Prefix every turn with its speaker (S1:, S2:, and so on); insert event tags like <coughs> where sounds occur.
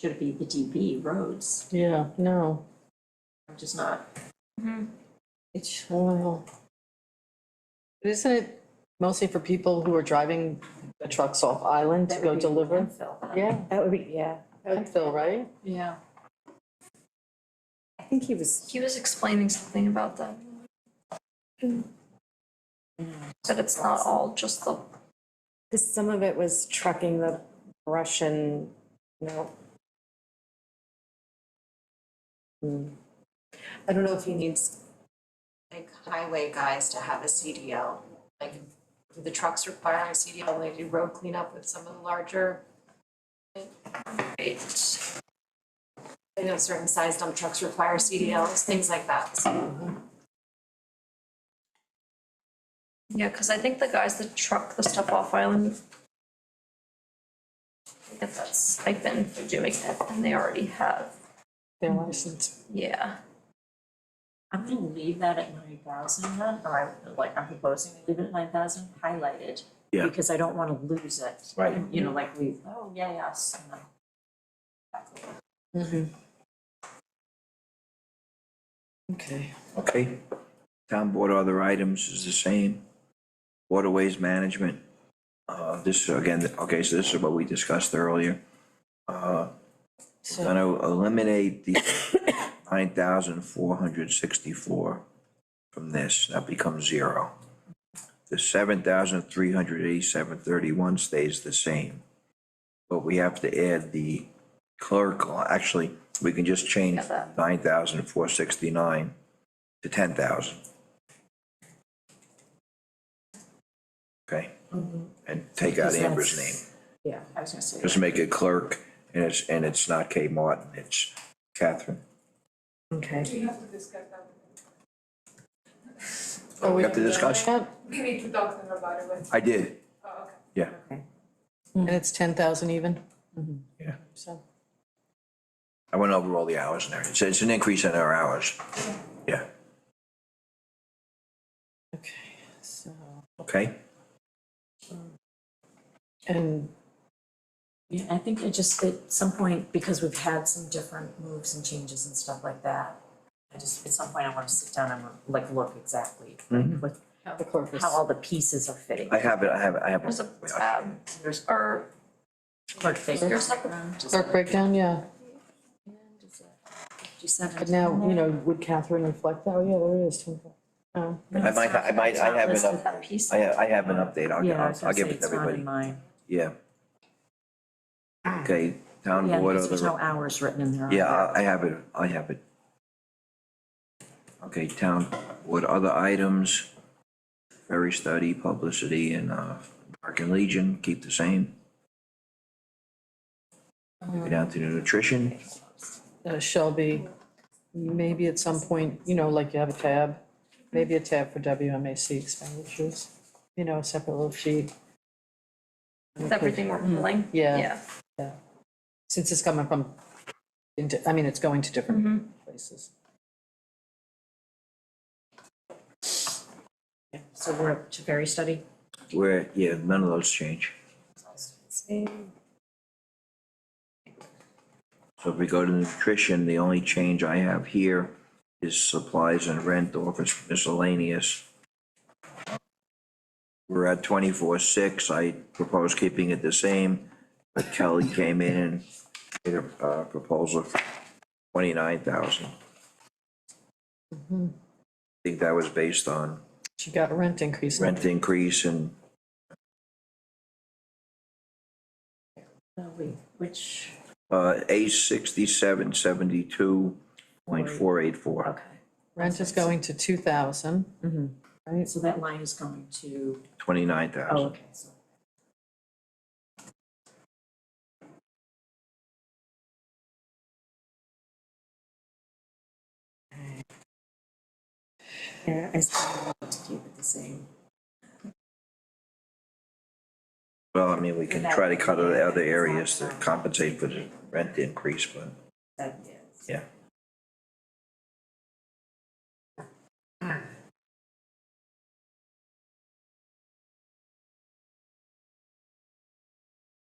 S1: should it be the DB roads,
S2: Yeah, no,
S1: which is not.
S2: it's, well. But Isn't it mostly for people who are driving the trucks off island to go deliver? Yeah,
S3: That would be, yeah.
S2: Hemphill, right?
S1: Yeah.
S3: I think he was,
S4: He was explaining something about that. That it's not all just the,
S3: because some of it was trucking the Russian, no. Hmm. I don't know if he needs
S1: Like highway guys to have a CDL, like do the trucks require a CDL when they do road cleanup with some of the larger?
S4: it's,
S1: I know certain size dump trucks require CDLs, things like that, so
S4: yeah, because I think the guys that truck the stuff off island they get that stipend for doing it, and they already have,
S2: Their
S3: Mhm.
S2: license.
S4: yeah.
S1: I'm gonna leave that at nine thousand then, or I'm like, I'm proposing to leave it at nine thousand highlighted.
S5: Yeah.
S1: Because I don't wanna lose it.
S5: Right.
S1: And, You know, like we, oh, yeah, yes, and then. back away.
S3: Mm-hmm.
S2: Okay.
S5: Okay. Town board other items is the same. Waterways management. Uh, this again, okay, so this is what we discussed earlier. Uh, we're
S2: So,
S5: gonna eliminate the <coughs> nine thousand four hundred sixty-four from this, that becomes zero. The seven thousand three hundred eighty-seven thirty-one stays the same. But we have to add the clerical, actually, we can just change
S4: Got that.
S5: nine thousand four sixty-nine to ten thousand. Okay, and take out
S3: Because
S5: Amber's name.
S3: that's- Yeah.
S1: I was gonna say.
S5: Just make it clerk, and it's, and it's not Kate Martin, it's Catherine.
S3: Okay.
S2: are Oh, we
S5: After discussion,
S2: And
S6: We need to talk to them about it, but,
S5: I did,
S6: uh, okay.
S5: yeah,
S3: Mm.
S2: it's ten thousand even?
S5: Yeah.
S2: So,
S5: I went over all the hours in there, it's, it's an increase in our hours, yeah,
S2: okay, so,
S5: okay?
S2: and
S1: Yeah, I think it just, at some point, because we've had some different moves and changes and stuff like that, I just, at some point, I wanna sit down and like look exactly what,
S2: the corpus.
S1: how all the pieces are fitting.
S5: Mm-hmm. I have it, I have it, I have
S4: There's
S5: it.
S4: a tab,
S1: There's
S4: or
S1: clerk figures.
S4: there's like
S2: Clerk breakdown, yeah,
S1: Fifty-seven.
S2: but now, you know, would Catherine reflect that? Oh, yeah, there it is, ten thousand. Oh,
S5: I might, ha- I might, I have
S1: It's
S5: an
S1: not
S5: up,
S4: that piece.
S5: I, ha- I have an update, I'll,
S1: Yeah, I
S5: I'll,
S1: was
S5: I'll
S1: gonna say,
S5: give it to
S1: it's not
S5: everybody,
S1: in mine.
S5: yeah. Okay, town
S1: Yeah,
S5: board
S1: because there's no
S5: other,
S1: hours written in there.
S5: yeah, I, I have it, I have it. Okay, town board other items, ferry study, publicity, and, uh, American Legion, keep the same. Go down to the nutrition,
S2: uh, Shelby, maybe at some point, you know, like you have a tab, maybe a tab for WMAC expenditures, you know, a separate little sheet.
S4: everything we're
S5: Hmm.
S4: pulling,
S2: Yeah.
S4: yeah.
S2: Since it's coming from, into, I mean, it's going to different places.
S1: So we're up to very study.
S5: where, yeah, none of those change. So if we go to nutrition, the only change I have here is supplies and rent, office miscellaneous. We're at twenty-four six, I propose keeping it the same, but Kelly came in and made a uh, proposal for twenty-nine thousand. I think that was based on
S2: She got a rent increase.
S5: rent increase and
S1: Oh, wait, which,
S5: Uh, A sixty-seven seventy-two point four eight four,
S1: okay,
S2: Rent is going to two thousand.
S1: Mm-hmm.
S2: Right,
S1: so that line is going to,
S5: twenty-nine
S1: oh,
S5: thousand.
S1: okay, so.
S3: Yeah, I see.
S1: to keep it the same.
S5: Well, I mean, we can try to cut out the other areas to compensate for the rent increase, but,
S1: That is.
S5: Yeah.